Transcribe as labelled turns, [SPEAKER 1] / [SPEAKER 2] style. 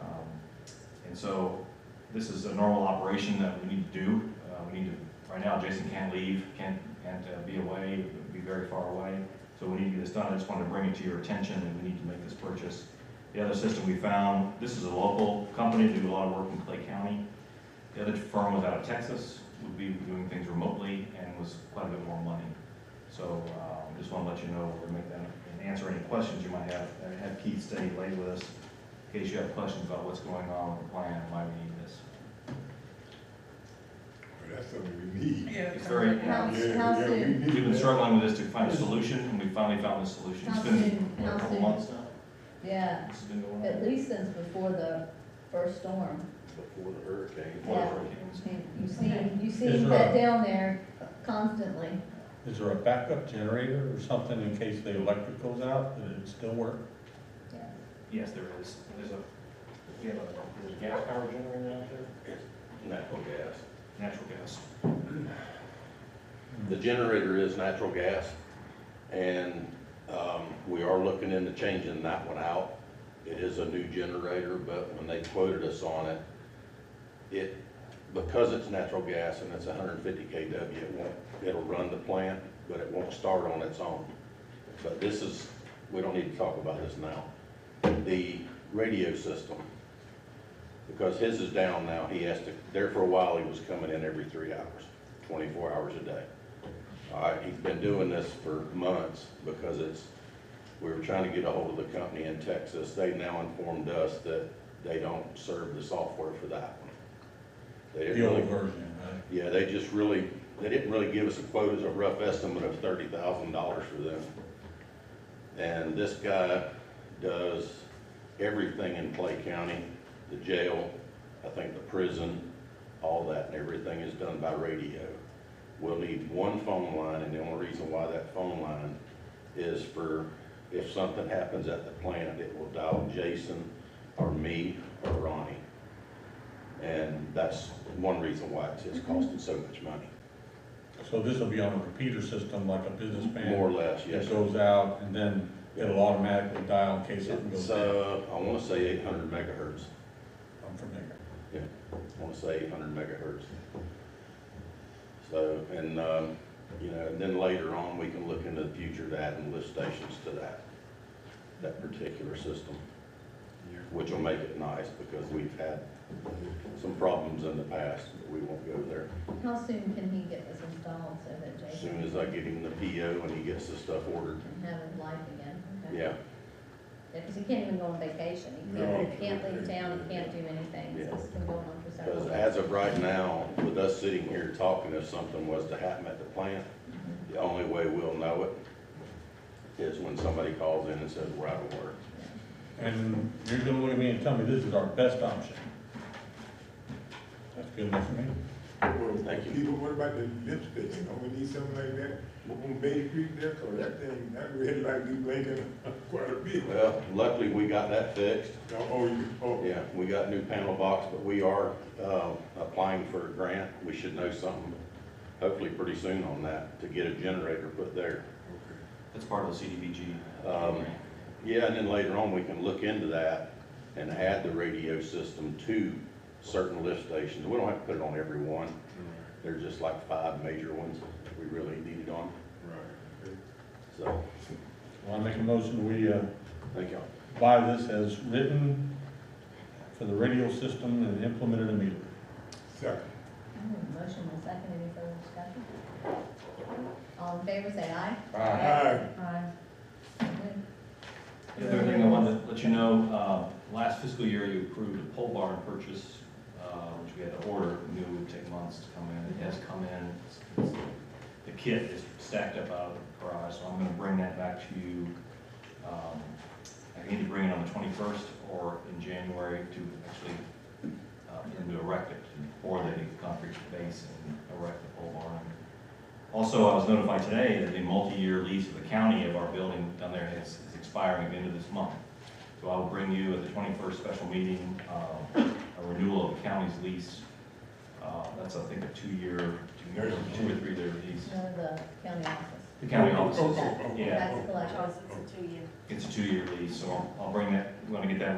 [SPEAKER 1] Um, So this is a normal operation that we need to do. Uh, We need to, right now, Jason can't leave, can't, can't uh, be away, be very far away. So we need to get this done. I just wanted to bring it to your attention and we need to make this purchase. The other system we found, this is a local company, do a lot of work in Clay County. The other firm was out of Texas, would be doing things remotely and was quite a bit more money. So uh, just want to let you know, or make that, and answer any questions you might have. I had Keith stay late with us in case you have questions about what's going on with the plan and why we need this.
[SPEAKER 2] That's something we need.
[SPEAKER 3] Yeah.
[SPEAKER 1] It's very-
[SPEAKER 2] Yeah,
[SPEAKER 4] How's, how's
[SPEAKER 2] yeah, we
[SPEAKER 4] soon?
[SPEAKER 2] need
[SPEAKER 1] We've been
[SPEAKER 2] that.
[SPEAKER 1] struggling with this to find a solution, and we finally found the solution. It's
[SPEAKER 4] How
[SPEAKER 1] been,
[SPEAKER 4] soon?
[SPEAKER 1] what, a
[SPEAKER 4] How
[SPEAKER 1] couple
[SPEAKER 4] soon?
[SPEAKER 1] months now?
[SPEAKER 4] Yeah,
[SPEAKER 1] This has been going on.
[SPEAKER 4] at least since before the first storm.
[SPEAKER 5] before the hurricane.
[SPEAKER 1] Before the
[SPEAKER 4] yeah.
[SPEAKER 1] hurricanes.
[SPEAKER 4] You you see, you see
[SPEAKER 6] Is there
[SPEAKER 4] that
[SPEAKER 6] a-
[SPEAKER 4] down there constantly.
[SPEAKER 6] Is there a backup generator or something in case the electric goes out, that it still work?
[SPEAKER 1] Yes, there is. There's a, we have a, there's a gas power generator out there?
[SPEAKER 5] Natural gas.
[SPEAKER 1] Natural gas.
[SPEAKER 5] The generator is natural gas, and
[SPEAKER 2] Uh,
[SPEAKER 5] um, we are looking into changing that one out. It is a new generator, but when they quoted us on it, it, because it's natural gas and it's 150 KW, it won't, it'll run the plant, but it won't start on its own. But this is, we don't need to talk about this now. The radio system, because his is down now, he has to, there for a while, he was coming in every three hours, 24 hours a day. All right, he's been doing this for months because it's, we were trying to get a hold of the company in Texas. They now informed us that they don't serve the software for that one. They didn't
[SPEAKER 6] The
[SPEAKER 5] really
[SPEAKER 6] old version, right?
[SPEAKER 5] yeah, they just really, they didn't really give us a quote as a rough estimate of thirty thousand dollars for them. And this guy does everything in Clay County, the jail, I think the prison, all that, and everything is done by radio. We'll need one phone line, and the only reason why that phone line is for, if something happens at the plant, it will dial Jason or me or Ronnie. And that's one reason why it's, it's
[SPEAKER 6] Mm-hmm.
[SPEAKER 5] costing so much money,
[SPEAKER 6] So this will be on a repeater system like a business
[SPEAKER 5] more
[SPEAKER 6] man?
[SPEAKER 5] or less, yes.
[SPEAKER 6] It goes out and then it'll automatically dial in case something goes
[SPEAKER 5] It's,
[SPEAKER 6] down?
[SPEAKER 5] uh, I wanna say eight hundred megahertz,
[SPEAKER 6] I'm familiar.
[SPEAKER 5] I wanna say eight hundred megahertz. So, and, um, you know, and then later on, we can look into the future to adding lift stations to that, that particular system, which will make it nice, because we've had some problems in the past, but we won't go there.
[SPEAKER 4] How soon can he get this installed so that
[SPEAKER 5] As
[SPEAKER 4] Jason
[SPEAKER 5] soon as I get him the PO and he gets the stuff ordered,
[SPEAKER 4] can have his life again? Okay.
[SPEAKER 5] yeah,
[SPEAKER 4] Because he can't even go on vacation. He
[SPEAKER 2] No.
[SPEAKER 4] can't, he can't leave town, he can't do anything.
[SPEAKER 5] Yeah.
[SPEAKER 4] This has been going on for several
[SPEAKER 5] Because
[SPEAKER 4] months.
[SPEAKER 5] as of right now, with us sitting here talking, if something was to happen at the plant, the only way we'll know it is when somebody calls in and says, we're out of work.
[SPEAKER 6] And you're gonna look at me and tell me this is our best option? That's good enough for me.
[SPEAKER 2] Well,
[SPEAKER 5] Thank you.
[SPEAKER 2] People, what about the lift station? Don't we need something like that? On Bay Creek there, cause that thing, that red light be blinking quite a bit.
[SPEAKER 5] Well, luckily, we got that fixed.
[SPEAKER 2] Oh, oh, you, oh,
[SPEAKER 5] Yeah, we got new panel box, but we are, uh, applying for a grant. We should know something, hopefully pretty soon on that, to get a generator put there.
[SPEAKER 2] okay.
[SPEAKER 1] That's part of the CDBG.
[SPEAKER 5] Um, Yeah, and then later on, we can look into that and add the radio system to certain lift stations. We don't have to put it on every one. There's just like five major ones that we really need it on,
[SPEAKER 2] Right, okay.
[SPEAKER 5] so,
[SPEAKER 6] Well, I make a motion, we, uh,
[SPEAKER 5] thank y'all.
[SPEAKER 6] buy this as written for the radio system and implement it immediately.
[SPEAKER 2] Second.
[SPEAKER 4] Mm, Motion and second, any further discussion? All in favor, say aye.
[SPEAKER 2] Aye.
[SPEAKER 4] Aye. Good.
[SPEAKER 1] The other thing I wanted to let you know, uh, last fiscal year, you approved a pole barn purchase, uh, which we had to order, We knew it would take months to come in, it has come in. It's- it's- The kit is stacked up out of the garage, so I'm gonna bring that back to you. um, I need to bring it on the twenty-first or in January to actually, uh, and to erect it, pour the concrete base and erect the pole barn. Also, I was notified today that the multi-year lease of the county of our building down there is is expiring at the end of this month. So I will bring you at the twenty-first special meeting, uh, a renewal of the county's lease. Uh, That's, I think, a two-year, two year two or three-year lease.
[SPEAKER 4] No, the county office.
[SPEAKER 1] The county
[SPEAKER 2] Oh, oh,
[SPEAKER 1] offices,
[SPEAKER 2] oh, oh, oh,
[SPEAKER 1] yeah.
[SPEAKER 4] That's collected.
[SPEAKER 3] Charles, it's a two-year.
[SPEAKER 1] It's a two-year lease, so I'll- I'll bring that, want to get that